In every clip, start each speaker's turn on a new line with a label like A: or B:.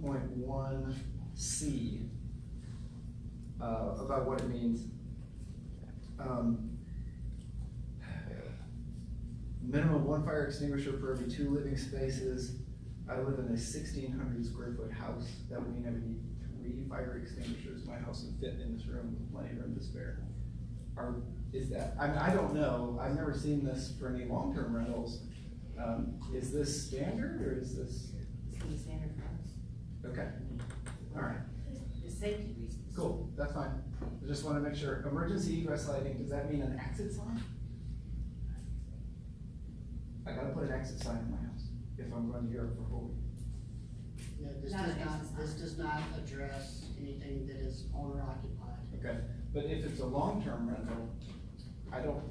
A: point one C, uh, about what it means. Um, Minimum of one fire extinguisher for every two living spaces. I live in a sixteen hundred square foot house, that would mean I would need three fire extinguishers, my house would fit in this room with plenty of room to spare. Are, is that, I mean, I don't know, I've never seen this for any long-term rentals. Um, is this standard or is this,
B: It's gonna be standard for us.
A: okay, all right,
B: For safety reasons.
A: cool, that's fine. I just wanna make sure, emergency egress lighting, does that mean an exit sign? I gotta put an exit sign in my house if I'm going to Europe for Holy.
C: Yeah, this
B: Not
C: does
B: an
C: not,
B: exercise.
C: this does not address anything that is owner occupied.
A: Okay, but if it's a long-term rental, I don't,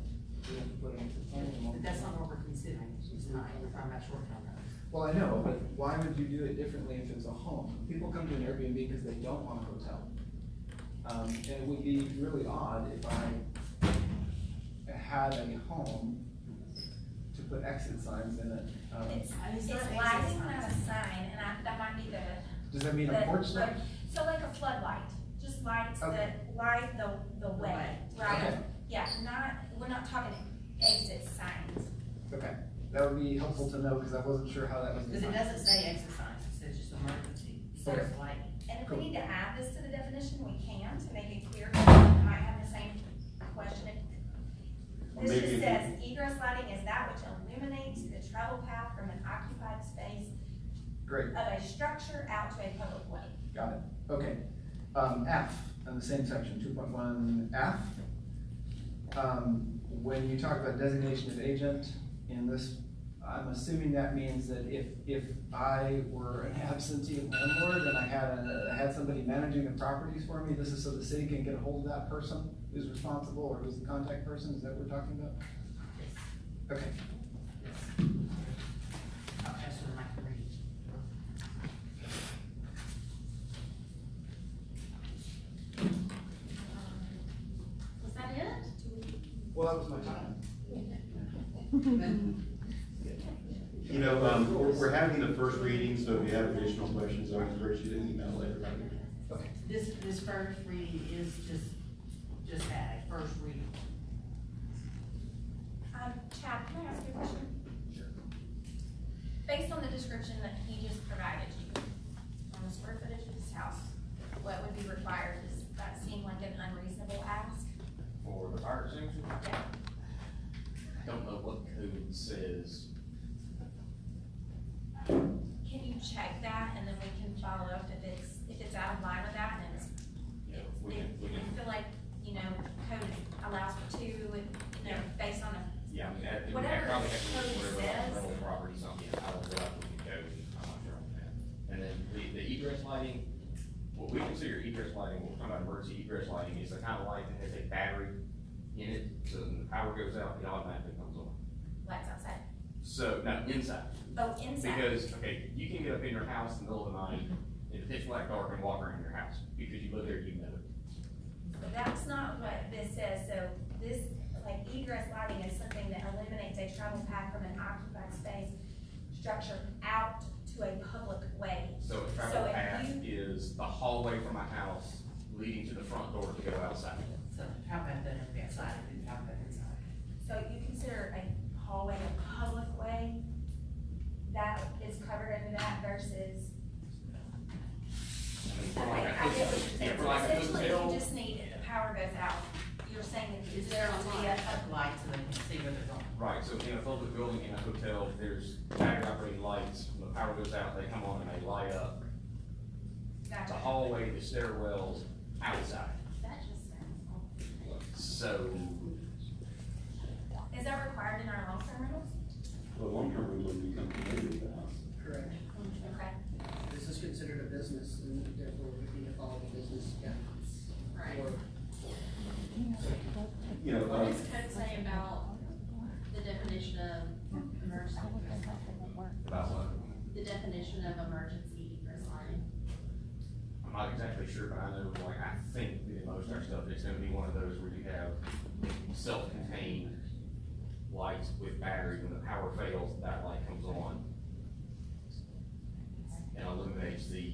A: we have to put an exit sign in long.
B: But that's not what we're considering tonight, we're talking about short-term rentals.
A: Well, I know, but why would you do it differently if it's a home? People come to an Airbnb because they don't want a hotel. Um, and it would be really odd if I had a home to put exit signs in it. Um,
D: It's,
B: I mean,
D: it's
B: it's not
D: lighting,
B: exercise.
D: not a sign, and I, that might be the.
A: does that mean a
D: the-
A: porch light?
D: So like a floodlight, just lights
A: Okay.
D: that light the, the
B: The
D: way,
B: way.
D: right?
A: Okay.
D: Yeah, not, we're not talking exit signs.
A: Okay, that would be helpful to know because I wasn't sure how that was
B: Cause it
A: defined.
B: doesn't say exercise, it says just emergency, so it's like,
D: And if
A: Cool.
D: we need to add this to the definition, we can to make it clear, because I might have the same question.
E: Or
D: This
E: maybe
D: just
E: if
D: says egress lighting is that which illuminates the travel path from an occupied space
A: Great,
D: of a structure out to a public way.
A: got it. Okay. Um, F, on the same section, two point one F. Um, when you talk about designation of agent in this, I'm assuming that means that if, if I were an absentee landlord and I had a, I had somebody managing the properties for me, this is so the city can get a hold of that person who's responsible or who's the contact person, is that what we're talking about? Okay,
B: I'll ask them like three.
D: Was that it?
A: well, that was my time.
E: You know, um, we're, we're having the first reading, so if you have additional questions, I would encourage you to email everybody.
B: This, this first reading is just, just that, a first reading.
D: Um, Chad, can I ask you a question? Based on the description that he just provided you, on the square footage of his house, what would be required, does that seem like an unreasonable ask?
F: for the fire extinguisher.
D: Yeah.
F: I Don't know what code says,
D: Can you check that, and then we can follow up if it's, if it's out of line with that, and it's,
F: you know, we can, we
D: if
F: can,
D: you feel like, you know, code allows for two, and, you know, based on the,
F: yeah, I mean, that, we
D: Whatever
F: have probably have to
D: code
F: look whatever
D: says.
F: rental property, something, I don't know, what we can go, I'm not sure on that. And then the, the egress lighting, what we consider egress lighting, when we're talking about emergency egress lighting, is the kind of light that has a battery in it, so when the power goes out, it automatically comes on.
D: lights outside,
F: So, no, inside,
D: oh, inside,
F: because, okay, you can get up in your house in the middle of the night, in the pitch black dark and walk around your house, because you live there, you know it.
D: So that's not what this says, so this, like, egress lighting is something that eliminates a travel path from an occupied space structure out to a public way.
F: So a
D: So
F: travel
D: if
F: path
D: you-
F: is the hallway from my house leading to the front door to go outside.
B: So how about that on the outside, and how about inside?
D: So you consider a hallway a public way, that is covered under that versus.
F: I mean,
D: Okay,
F: for like a
D: I get what you're saying,
F: hotel- for
D: So
F: like a
D: essentially,
F: hotel,
D: you just need, if the power goes out, you're saying that
B: Is
D: there
B: there
D: will be a, a-
B: a light so they can see where they're going?
F: Right, so in a public building, in a hotel, there's battery operated lights, when the power goes out, they come on and they light up. The
D: gotcha.
F: hallway, the stairwells, outside,
D: that just sounds awful.
F: so.
D: Is that required in our long-term rentals?
E: Well, long-term rental becomes the name of the house.
C: Correct.
D: Okay,
C: This is considered a business and therefore would need to follow the business guidelines.
D: right.
C: Or-
E: You know,
D: What
E: um,
D: does code say about the definition of emergency,
F: About what?
D: the definition of emergency egress line?
F: I'm not exactly sure, but I know, like, I think the most of our stuff is gonna be one of those where you have self-contained lights with batteries, when the power fails, that light comes on. And illuminates the